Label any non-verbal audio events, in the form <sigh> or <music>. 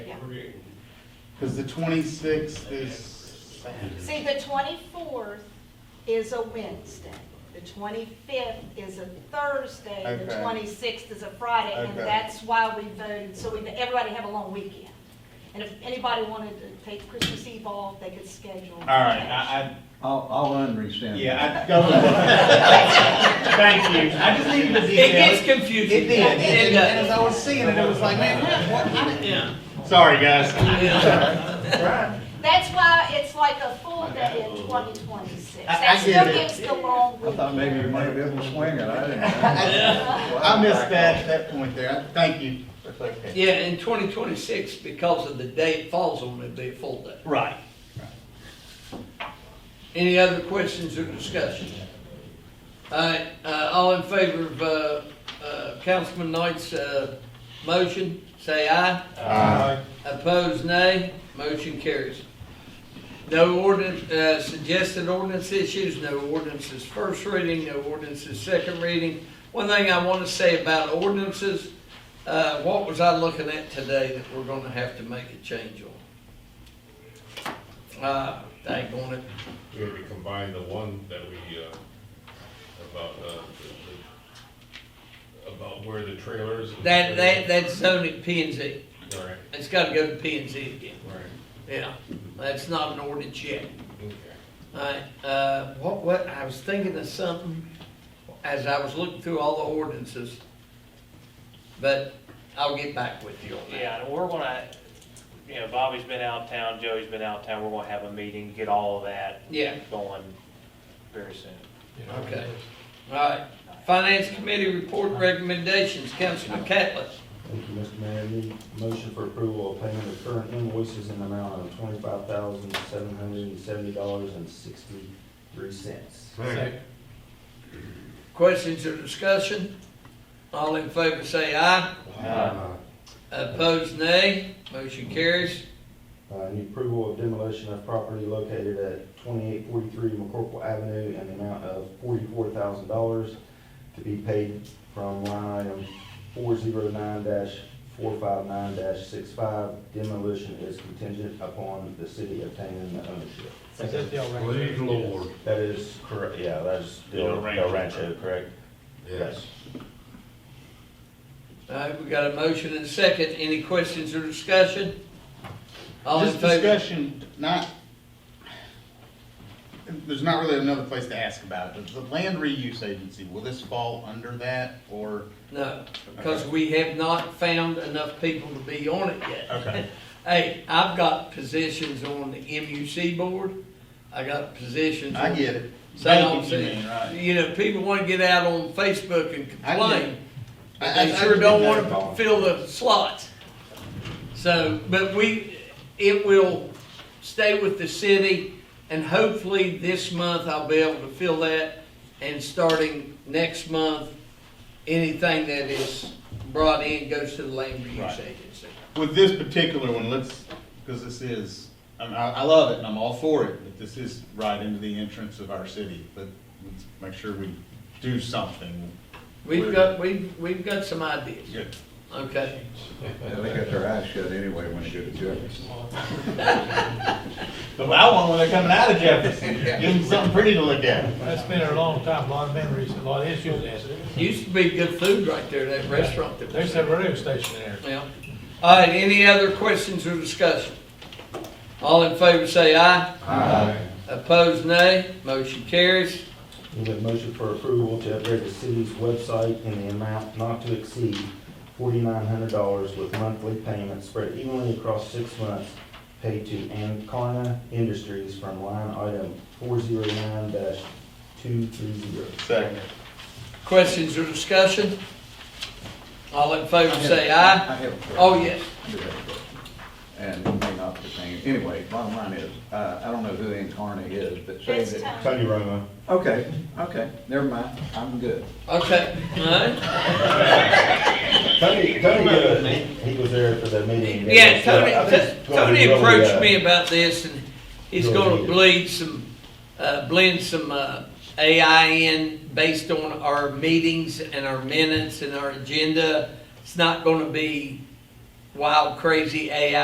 create. Because the twenty-sixth is, See, the twenty-fourth is a Wednesday, the twenty-fifth is a Thursday, the Okay. twenty-sixth is a Friday, and Okay. that's why we voted, so we, everybody have a long weekend. And if anybody wanted to take Christmas Eve off, they could schedule. All right, I, I'll, I'll I, unrescind. yeah, I, go <laughs> Thank you. I just needed the It gets details. confusing. it did, and- It and does. as I was seeing it, it was like, man, what, what, I didn't. Yeah. Sorry, guys. Yeah. Right. That's why it's like a full day in twenty twenty-six. I- I That get still it. gives the long I weekend. thought maybe you might be able to swing it, I didn't. <laughs> Yeah. know. I missed that, that point there, thank you. That's okay. Yeah, in twenty twenty-six, because of the day it falls on, it'd be a full day. Right. Any other questions or discussion? All right, uh, all in favor of, uh, uh, Councilman Knight's, uh, motion, say aye. Opposed, nay. Motion carries. No ordinance, uh, suggested ordinance issues, no ordinances first reading, no ordinances second reading. One thing I want to say about ordinances, uh, what was I looking at today that we're gonna have to make a change on? Uh, dang on it. We're gonna combine the one that we, uh, about, uh, the- the- about where the trailers. and- That, that, that's zoning P and Z. All right, It's gotta go to P and Z again. all right, Yeah, that's not an ordinance yet. okay. Alright, uh, what, what, I was thinking of something as I was looking through all the ordinances, but I'll get back with you on that. Yeah, and we're gonna, you know, Bobby's been out of town, Joey's been out of town, we're gonna have a meeting, get all of that Yeah, going very soon. okay. Alright, Finance Committee report recommendations, Councilman Catlett. Thank you, Mr. Mayor. Need motion for approval of payment of current invoices in the amount of twenty-five thousand, seven hundred and seventy dollars and sixty-three cents. Questions or discussion? All in favor say aye. Opposed nay. Motion carries. Uh, need approval of demolition of property located at twenty-eight forty-three McCorkle Avenue in the amount of forty-four thousand dollars to be paid from line item four zero nine four five nine 65 Demolition is contingent upon the city obtaining the ownership. Please, Lord. That is correct, yeah, that is Del Del Rancho. Del Rancho, correct? Yes. Alright, we got a motion and a second. Any questions or discussion? All in Just favor? discussion, not, there's not really another place to ask about it. Does the land reuse agency, will this fall under that, or? No, because we have not found enough people to be on it yet. Okay. <laughs> Hey, I've got positions on the MUC board, I got positions on. I get it. So I'm Thank you, you saying, mean, right. You know, people wanna get out on Facebook and I get it. complain, but I- I- they I sure get don't that wanna involved. fill the slots. So, but we, it will stay with the city, and hopefully this month I'll be able to fill that. And starting next month, anything that is brought in goes to the land reuse Right. agency. With this particular one, let's, because this is, I mean, I, I love it and I'm all for it, but this is right into the entrance of our city, but let's make sure we do something. We've Where- got, we've, we've got some ideas, Good. okay? Yeah, They got their eyes shut anyway when they go to Jefferson. The loud one when they're coming out of <laughs> Jefferson, give them something pretty to look at. That's been there a long time, a lot of memories, a lot of issues. Used to be good food right there, that restaurant that was There's a radio station there. Yeah. All right, any other questions or discussion? All in favor say aye. Aye. Opposed, nay. Motion carries. Need a motion for approval to upgrade the city's website in the amount not to exceed forty-nine hundred dollars with monthly payments spread evenly across six months paid to Ancarna Industries from line item four zero nine two three zero. Second. Questions or discussion? All in favor say I aye. have a question. Oh, yes. Do have a question. And it may not pertain, anyway, bottom line is, uh, I don't know who Incarna is, but say It's that. time. Tony Romo. Okay, okay, never mind, I'm good. Okay, all right. Tony, Tony, uh, he was there for the meeting. Yeah, I Tony, think T- it's gonna be Tony really, uh, approached me about this and he's Really gonna needed. bleed some, uh, blend some, uh, AI in based on our meetings and our minutes and our agenda. It's not gonna be wild, crazy AI